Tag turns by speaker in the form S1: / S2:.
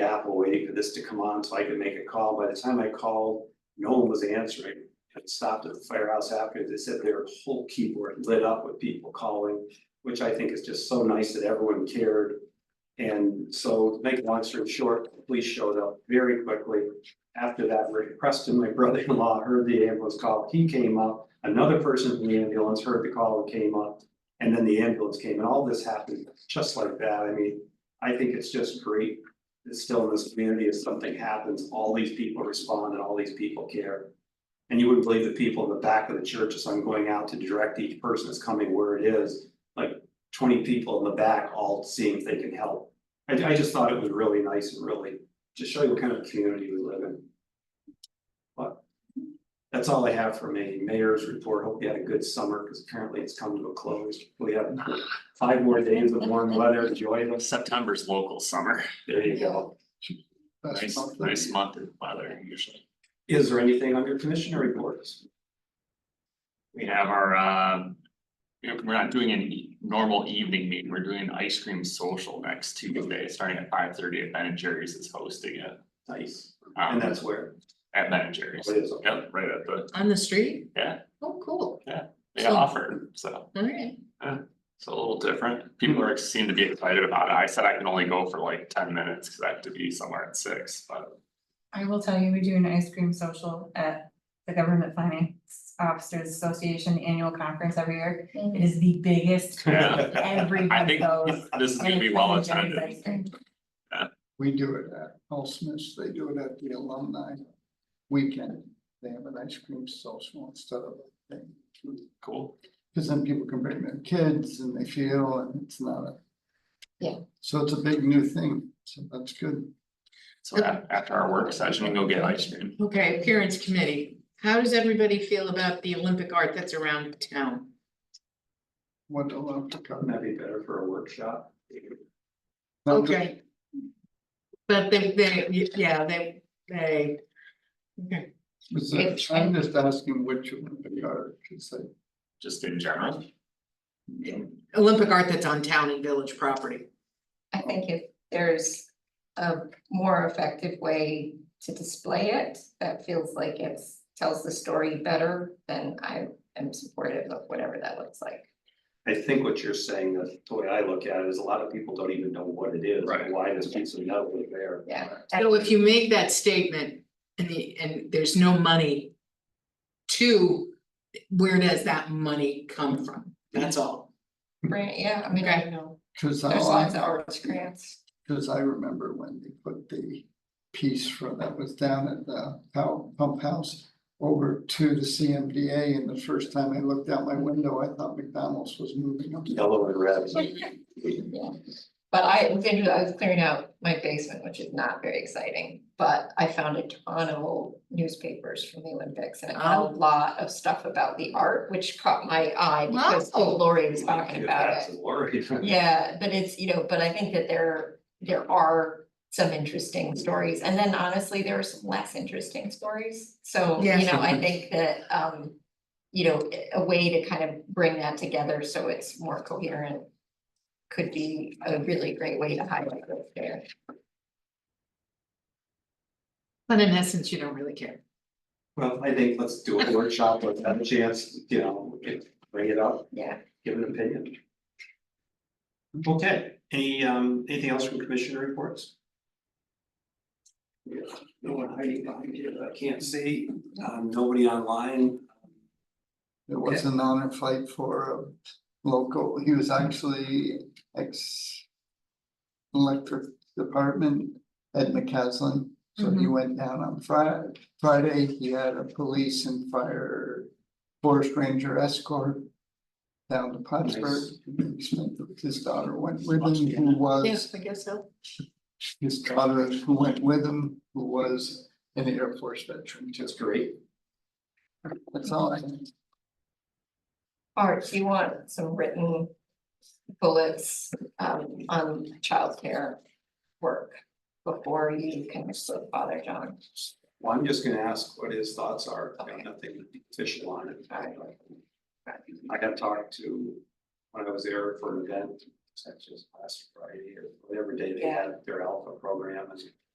S1: Apple waiting for this to come on so I could make a call. By the time I called, no one was answering. I stopped at the firehouse after. They said their whole keyboard lit up with people calling, which I think is just so nice that everyone cared. And so to make a long story short, the police showed up very quickly. After that, Rick Preston, my brother-in-law, heard the ambulance call. He came up. Another person from the ambulance heard the call and came up. And then the ambulance came and all this happened just like that. I mean, I think it's just great. It's still in this community, if something happens, all these people respond and all these people care. And you wouldn't believe the people in the back of the church, as I'm going out to direct each person that's coming where it is, like twenty people in the back all seeing if they can help. I I just thought it was really nice and really, just show you what kind of community we live in. But that's all I have for me, mayor's report, hope you had a good summer, because apparently it's come to a close, we have five more days of warm weather, enjoy this,
S2: September's local summer,
S1: there you go.
S2: nice, nice month of weather usually.
S1: Is there anything on your commissioner reports?
S2: We have our, uh, you know, we're not doing any normal evening meeting, we're doing an ice cream social next Tuesday, starting at five thirty at Ben and Jerry's is hosting it.
S1: Nice,
S2: um,
S1: and that's where,
S2: At Ben and Jerry's,
S1: it is,
S2: yep, right at the,
S3: On the street?
S2: Yeah.
S3: Oh, cool.
S2: they
S3: So-
S2: offer, so.
S3: Alright.
S2: It's a little different. People are, seem to be excited about it. I said I can only go for like ten minutes because I have to be somewhere at six, but
S4: I will tell you, we do an ice cream social at the Government Finance Officers Association Annual Conference every year. It is the biggest,
S2: yeah. I
S4: everybody
S2: think
S4: goes.
S2: this is
S4: and
S2: gonna be
S4: it's
S2: well
S4: Ben and Jerry's
S2: attended.
S4: ice cream.
S5: We do it at Paul Smith's, they do it at the alumni weekend. They have an ice cream social instead of a thing.
S2: Cool.
S5: Cause then people can bring their kids and they feel and it's not a.
S3: Yeah.
S5: So it's a big new thing, so that's good.
S2: So a- after our work session, we can go get ice cream.
S3: Okay, appearance committee. How does everybody feel about the Olympic art that's around town?
S5: What a lot to
S1: wouldn't
S5: come.
S1: that be better for a workshop?
S5: Um,
S3: Okay. But they, they, yeah, they, they. okay.
S5: Was it- I'm just asking which one they are, cause I,
S2: just in general.
S3: Olympic art that's on town and village property.
S6: I think if there's a more effective way to display it, that feels like it's, tells the story better, then I am supportive of whatever that looks like.
S1: I think what you're saying, the way I look at it, is a lot of people don't even know what it is,
S2: Right.
S1: why this piece of metal is there.
S6: Yeah.
S3: So if you make that statement and the, and there's no money. To, where does that money come from? That's all.
S6: Right, yeah, I mean, I know,
S5: cause I.
S6: there's lots of arts grants.
S5: Cause I remember when they put the piece for that was down at the pow- pump house. Over to the CMDA and the first time I looked out my window, I thought McDonald's was moving up.
S1: Yellow and red.
S6: Yeah, but I, was into- I was clearing out my basement, which is not very exciting, but I found a ton of old newspapers from the Olympics. And it had a
S3: Oh.
S6: lot of stuff about the art, which caught my eye because
S3: Wow.
S6: Lori was talking about
S1: That's
S6: it.
S1: a worry.
S6: Yeah, but it's, you know, but I think that there, there are some interesting stories, and then honestly, there are some less interesting stories. So, you
S3: Yes.
S6: know, I think that, um, you know, a way to kind of bring that together so it's more coherent. Could be a really great way to highlight what's there.
S3: But in essence, you don't really care.
S1: Well, I think let's do a workshop, let's have a chance, you know, get- bring it up,
S6: Yeah,
S1: give an opinion. Okay, any, um, anything else from commissioner reports? Yeah, No one hiding behind here that I can't see, um, nobody online.
S5: There was an honor flight for a local, he was actually ex. Electric department, Ed McCaslin, so
S1: Mm-hmm.
S5: he went down on Friday, Friday, he had a police and fire. Forest ranger escort. Down to Plattsburgh, He spent- his daughter went with him, who was,
S3: I guess so.
S5: his daughter who went with him, who was an Air Force veteran,
S1: That's
S5: just,
S1: great.
S5: that's all I.
S6: Art, you want some written bullets, um, on childcare work before you can with Father John.
S1: Well, I'm just gonna ask what his thoughts are, I got
S6: Okay.
S1: nothing official on it.
S6: Alright.
S1: I got talked to, when I was there for an event, such as last Friday or whatever day they had their alpha program, and